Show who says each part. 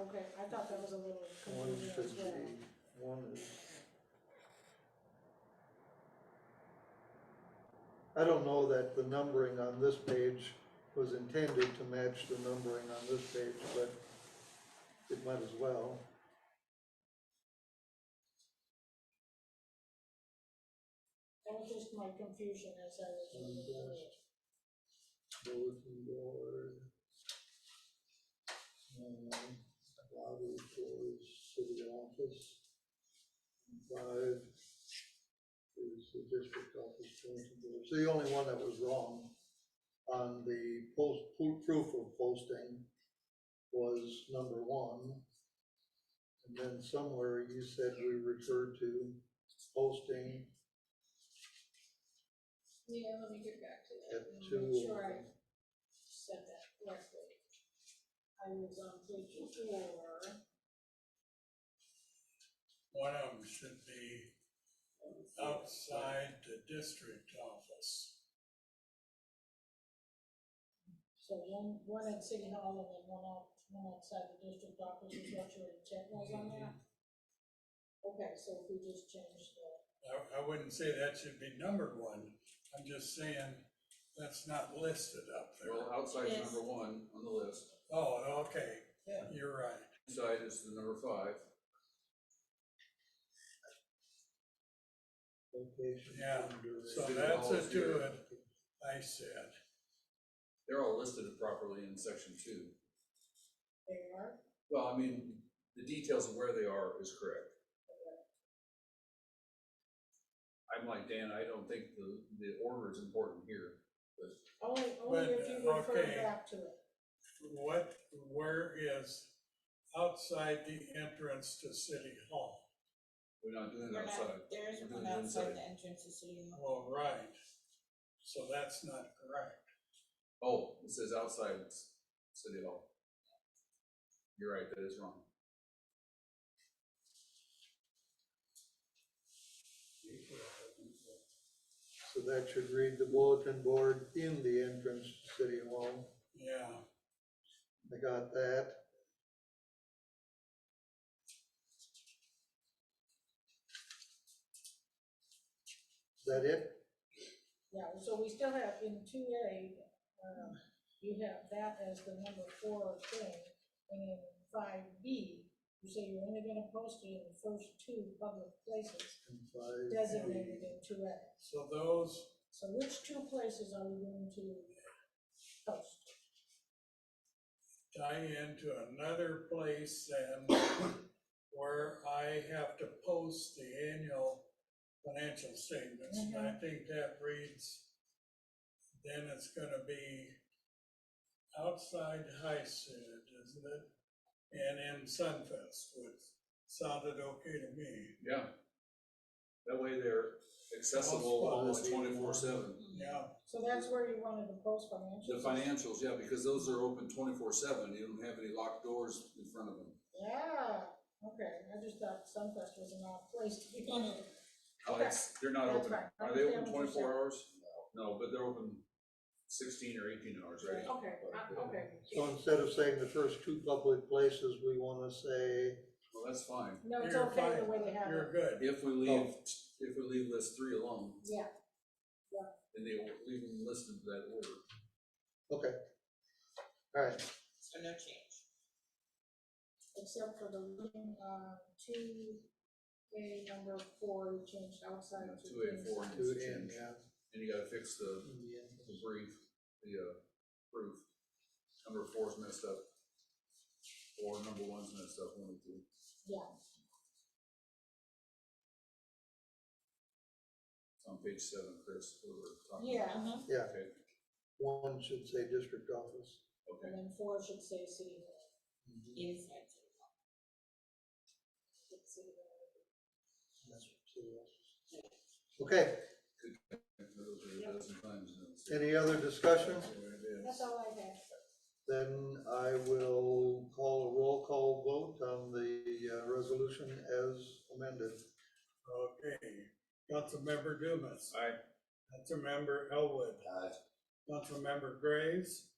Speaker 1: okay, I thought that was a little
Speaker 2: One
Speaker 1: confusing as well.
Speaker 2: fifty, one is. I don't know that the numbering on this page was intended to match the numbering on this page, but it might as well.
Speaker 1: That was just my confusion as I was. looking at it.
Speaker 2: bulletin board. And lobby for city office. Five is the district office bulletin board. So the only one that was wrong on the post, proof of posting was number one. And then somewhere you said we referred to posting
Speaker 1: Yeah, let me get back to that
Speaker 2: at
Speaker 1: and
Speaker 2: two.
Speaker 1: make sure I said that correctly. I was on page four,
Speaker 3: One of them should be Oh. outside the district office.
Speaker 1: so one, one at City Hall and then one out, one outside the district office is what your intent was on that? Okay, so if we just change the,
Speaker 3: I, I wouldn't say that should be numbered one, I'm just saying that's not listed up there.
Speaker 4: Well, outside's
Speaker 1: Yes.
Speaker 4: number one on the list,
Speaker 3: Oh, okay,
Speaker 4: Yeah.
Speaker 3: you're right.
Speaker 4: inside is the number five.
Speaker 2: Location.
Speaker 3: Yeah,
Speaker 2: under-
Speaker 3: So
Speaker 4: City
Speaker 3: that's
Speaker 4: Hall
Speaker 3: a
Speaker 4: is here.
Speaker 3: two, I said,
Speaker 4: They're all listed properly in section two.
Speaker 1: they are,
Speaker 4: Well, I mean, the details of where they are is correct. I'm like, Dan, I don't think the, the order is important here, but
Speaker 1: only, only if
Speaker 3: But,
Speaker 1: you refer
Speaker 3: okay.
Speaker 1: back to it.
Speaker 3: what, where is outside the entrance to city hall?
Speaker 4: we're not doing it
Speaker 5: We're not,
Speaker 4: outside.
Speaker 5: there
Speaker 4: We're
Speaker 5: isn't
Speaker 4: doing
Speaker 5: one
Speaker 4: it
Speaker 5: outside
Speaker 4: inside.
Speaker 5: the entrance to City Hall.
Speaker 3: Well, right, so that's not correct.
Speaker 4: Oh, it says outside s- city hall. You're right, that is wrong.
Speaker 2: So that should read the bulletin board in the entrance to City Hall.
Speaker 3: Yeah,
Speaker 2: I got that. Is that it?
Speaker 1: Yeah, so we still have in two A, um, you have that as the number four thing, and in five B, you say you're only gonna post it in the first two public places
Speaker 2: And five,
Speaker 1: designated in two A.
Speaker 3: so those
Speaker 1: So which two places are we going to post?
Speaker 3: tie into another place and where I have to post the annual financial statements. And I
Speaker 1: Mm-hmm.
Speaker 3: think that reads, then it's gonna be outside High Sid, isn't it? And in Sunfest, which sounded okay to me.
Speaker 4: Yeah. That way they're accessible
Speaker 3: Well,
Speaker 4: almost
Speaker 3: it's-
Speaker 4: twenty-four seven.
Speaker 3: Yeah,
Speaker 1: So that's where you wanted to post financial.
Speaker 4: The financials, yeah, because those are open twenty-four seven, you don't have any locked doors in front of them.
Speaker 1: Yeah, okay, I just thought Sunfest was an odd place to be.
Speaker 4: Alex, they're not
Speaker 1: That's
Speaker 4: open,
Speaker 1: right.
Speaker 4: are they open
Speaker 1: Understand what you're
Speaker 4: twenty-four hours? No, but they're open sixteen or eighteen hours, right?
Speaker 1: Okay, I- okay.
Speaker 2: So instead of saying the first two public places, we wanna say,
Speaker 4: Well, that's fine,
Speaker 1: No, it's
Speaker 3: You're
Speaker 1: okay the
Speaker 3: fine.
Speaker 1: way they have it,
Speaker 3: you're good.
Speaker 4: if we leave,
Speaker 2: Oh.
Speaker 4: if we leave list three alone,
Speaker 1: yeah.
Speaker 4: then they will leave them listed to that order.
Speaker 2: alright,
Speaker 5: so no change.
Speaker 1: except for the living, uh, two, A number four, we changed outside
Speaker 4: Yeah,
Speaker 1: to.
Speaker 4: Two eight four and
Speaker 2: two
Speaker 4: it's
Speaker 2: in,
Speaker 4: changed,
Speaker 2: yeah.
Speaker 4: and you gotta fix the,
Speaker 2: in the entrance.
Speaker 4: the brief, the, uh, proof. Number four's messed up. Or number one's messed up, one of the two.
Speaker 1: Yeah,
Speaker 4: It's on page seven, Chris, what we're talking about.
Speaker 1: yeah, and
Speaker 2: Yeah,
Speaker 4: Okay,
Speaker 2: one should say district office.
Speaker 4: okay.
Speaker 1: then four should say city hall.
Speaker 5: Inside City Hall.
Speaker 1: should say the-
Speaker 2: That's city office. Okay,
Speaker 4: Those are a dozen times now, so-
Speaker 2: any other discussion?
Speaker 4: That's what it is.
Speaker 1: That's all I have.
Speaker 2: Then I will call a roll call vote on the uh, resolution as amended.
Speaker 3: Okay, Councilmember Dumas,
Speaker 4: Aye.
Speaker 3: Councilmember Elwood, Councilmember Graves,